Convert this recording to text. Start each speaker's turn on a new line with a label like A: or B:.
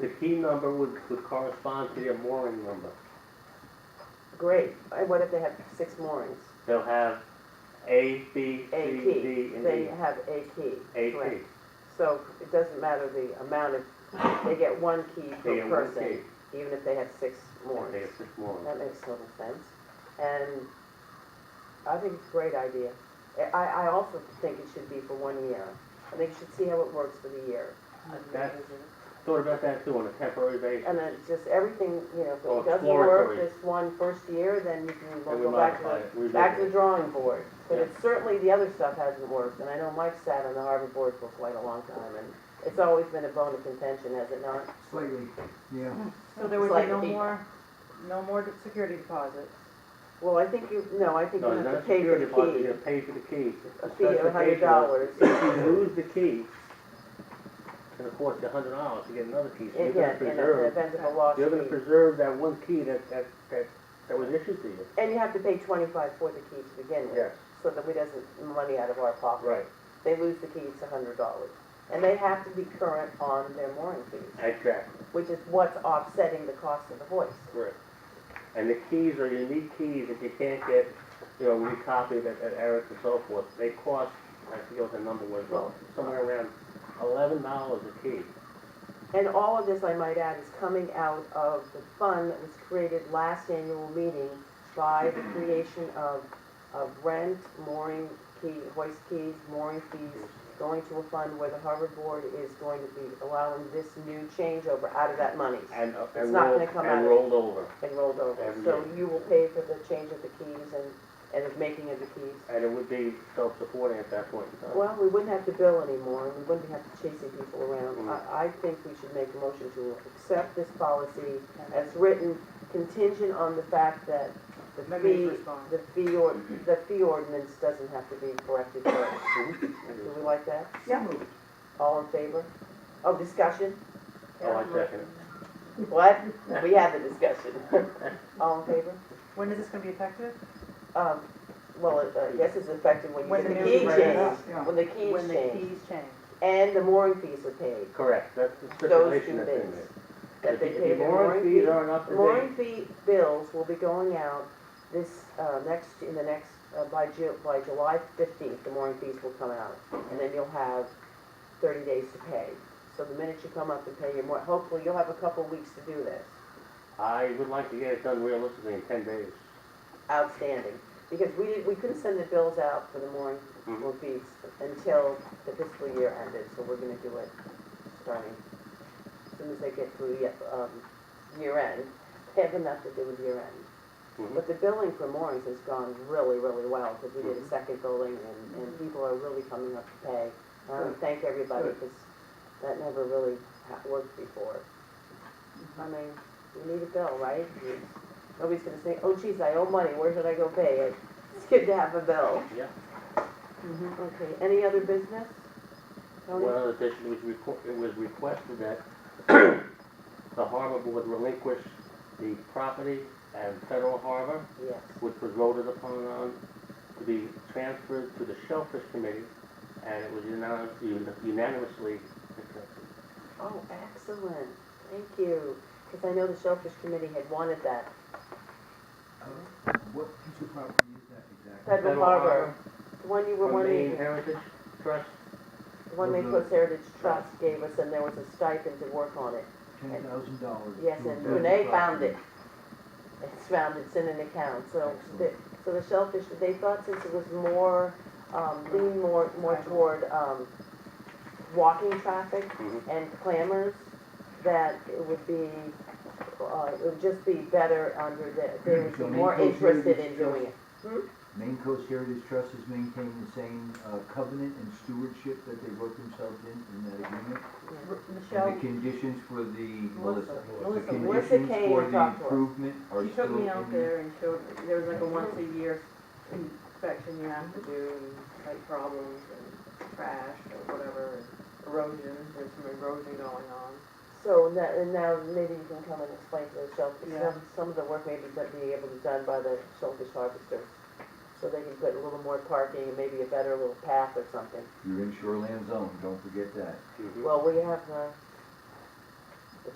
A: the P number would, would correspond to their mooring number.
B: Great, and what if they have six moorings?
A: They'll have A, B, C,
B: A
A: D,
B: key,
A: and
B: they
A: E.
B: have a key.
A: A, P.
B: correct. So it doesn't matter the amount of, they get one key per
A: They have one key.
B: person, even if they have six
A: They
B: moorings.
A: have six moorings.
B: That makes total sense. And I think it's a great idea. I- I, I also think it should be for one year. I think you should see how it works for the year.
A: That, thought about that too, on a temporary
B: And
A: basis.
B: then just everything, you know, if
A: Well,
B: it doesn't work
A: exploratory.
B: this one first year, then you can
A: And we
B: go back to
A: modify
B: the
A: it, we
B: back to the
A: revisit
B: drawing board. But
A: Yeah.
B: it's certainly, the other stuff hasn't worked, and I know Mike sat on the harbor board for quite a long time, and it's always been a bone of contention, has it not?
C: Slightly, yeah.
D: So there would be
B: Slightly
D: no
B: deeper.
D: more, no more de- security deposits?
B: Well, I think you, no, I think you
A: No,
B: have to
A: not
B: pay for
A: security
B: the
A: deposit, you
B: key,
A: gotta pay for the key.
B: a fee of a hundred dollars.
A: If you lose the key, it'll cost you a hundred dollars to get another key, so you're
B: Yeah,
A: gonna
B: in the
A: preserve,
B: event of a lost
A: you're gonna
B: key.
A: preserve that one key that, that, that, that was issued to you.
B: And you have to pay twenty-five for the key to begin with, so that we doesn't, money out of our pocket.
A: Right,
B: They lose the key, it's a hundred dollars. And they have to be current on their mooring fees.
A: exactly,
B: which is what's offsetting the cost of the hoist.
A: right. And the keys are unique keys that you can't get, you know, recopied at, at Eric and so forth, they cost, I forget what the number was, well, somewhere around eleven dollars a key.
B: And all of this, I might add, is coming out of the fund that was created last annual meeting by the creation of, of rent, mooring key, hoist keys, mooring fees, going to a fund where the harbor board is going to be allowing this new changeover out of that money
A: And, uh,
B: It's
A: and
B: not
A: rolled,
B: gonna come out
A: and
B: of-
A: rolled over.
B: and rolled over.
A: Every
B: So
A: year.
B: you will pay for the change of the keys and, and the making of the keys.
A: And it would be self-supporting at that point in time.
B: Well, we wouldn't have to bill anymore, and we wouldn't have to chasing people around.
A: Mm.
B: I, I think we should make a motion to accept this policy as written contingent on the fact that the
D: The
B: fee,
D: mayor's response.
B: the fee or, the fee ordinance doesn't have to be corrected first. Do we
A: Oh,
B: like that?
D: Yeah.
B: All in favor? Oh, discussion?
A: Oh, I second it.
B: What? We have a discussion. All in favor?
D: When is this gonna be effective?
B: Um, well, uh, I guess it's effective when
D: When
B: you get the
D: the
B: key
D: new
B: changed,
D: regs-
C: Yeah.
B: when the key
D: When
B: is
D: the
B: changed,
D: keys change.
B: and the mooring fees are paid.
A: Correct, that's the
B: Those two
A: stipulation that's in
B: things.
A: there.
B: That they
A: If-
B: pay
A: If
B: their
A: mooring fees aren't up to
B: Mooring
A: date,
B: fee bills will be going out this, uh, next, in the next, uh, by Ju, by July fifteenth, the mooring fees will come out. And then you'll have thirty days to pay. So the minute you come up and pay your mor, hopefully you'll have a couple weeks to do this.
A: I would like to get it done realistically in ten days.
B: Outstanding. Because we didn't, we couldn't send the bills out for the mooring
C: Mm-hmm.
A: Mhm.
B: or fees until the fiscal year ended, so we're gonna do it starting, as soon as they get through, the um, year end. They have enough to do with year end.
A: Mhm.
C: Mm-hmm.
B: But the billing for moorings has gone really, really well, because we
C: Mm-hmm.
B: did a
A: Mhm.
B: second billing, and, and people are really coming up to pay. And I want to thank everybody,
C: Good.
B: because that never really ha- worked before. I mean, you need a bill, right? You- Nobody's gonna say, oh geez, I owe money, where should I go pay it? It's good to have a bill. Mm-hmm.
A: Yeah.
B: Okay, any other business? Tony?
A: One other addition was requ- it was requested that the harbor board relinquish the property and federal harbor,
B: Yes.
A: which was voted upon on, to be transferred to the shellfish committee, and it was unanimous- unanimously accepted.
B: Oh, excellent, thank you, because I know the Shellfish Committee had wanted that.
C: What piece of property is that exactly?
B: Federal Harbor, the one you were
A: From
B: wanting.
A: Maine Heritage Trust,
B: The one they
C: Mhm.
B: Coast Heritage Trust gave us, and there was a stipend to work on it.
C: Ten thousand dollars.
B: Yes, and Renee found it. It's found, it's in an account, so, the- so the shellfish, they thought since it was more, um, lean more, more toward, um, walking traffic
A: Mhm.
B: and clamors, that it would be, uh, it would just be better under the, they would be
C: So
B: more
C: Maine Coast
B: interested in
C: Heritage
B: doing
C: Trust-
B: it.
C: Maine Coast Heritage Trust has maintained the same uh, covenant and stewardship that they wrote themselves in, in that agreement.
D: R-
C: And
D: Michelle,
C: the conditions for the, Melissa,
D: Melissa,
C: the
D: Melissa,
B: Melissa
C: conditions
B: came
C: for
B: and
C: the
B: talked to us.
C: improvement are
D: she
C: still
D: took
C: in.
D: me out there and showed, there was like a once a year inspection you have to do, and like problems and trash or whatever, and erosion, there's some erosion going on.
B: So now, and now maybe you can come and explain to the shellfish,
D: Yeah.
B: some, some of the work may be done, be able to be done by the shellfish harvesters. So they can put a little more parking and
C: Mm-hmm.
B: maybe a better little path or something.
C: You're in shoreland zone, don't forget that.
B: Mm-hmm.
A: Mhm.
B: Well, we have, uh,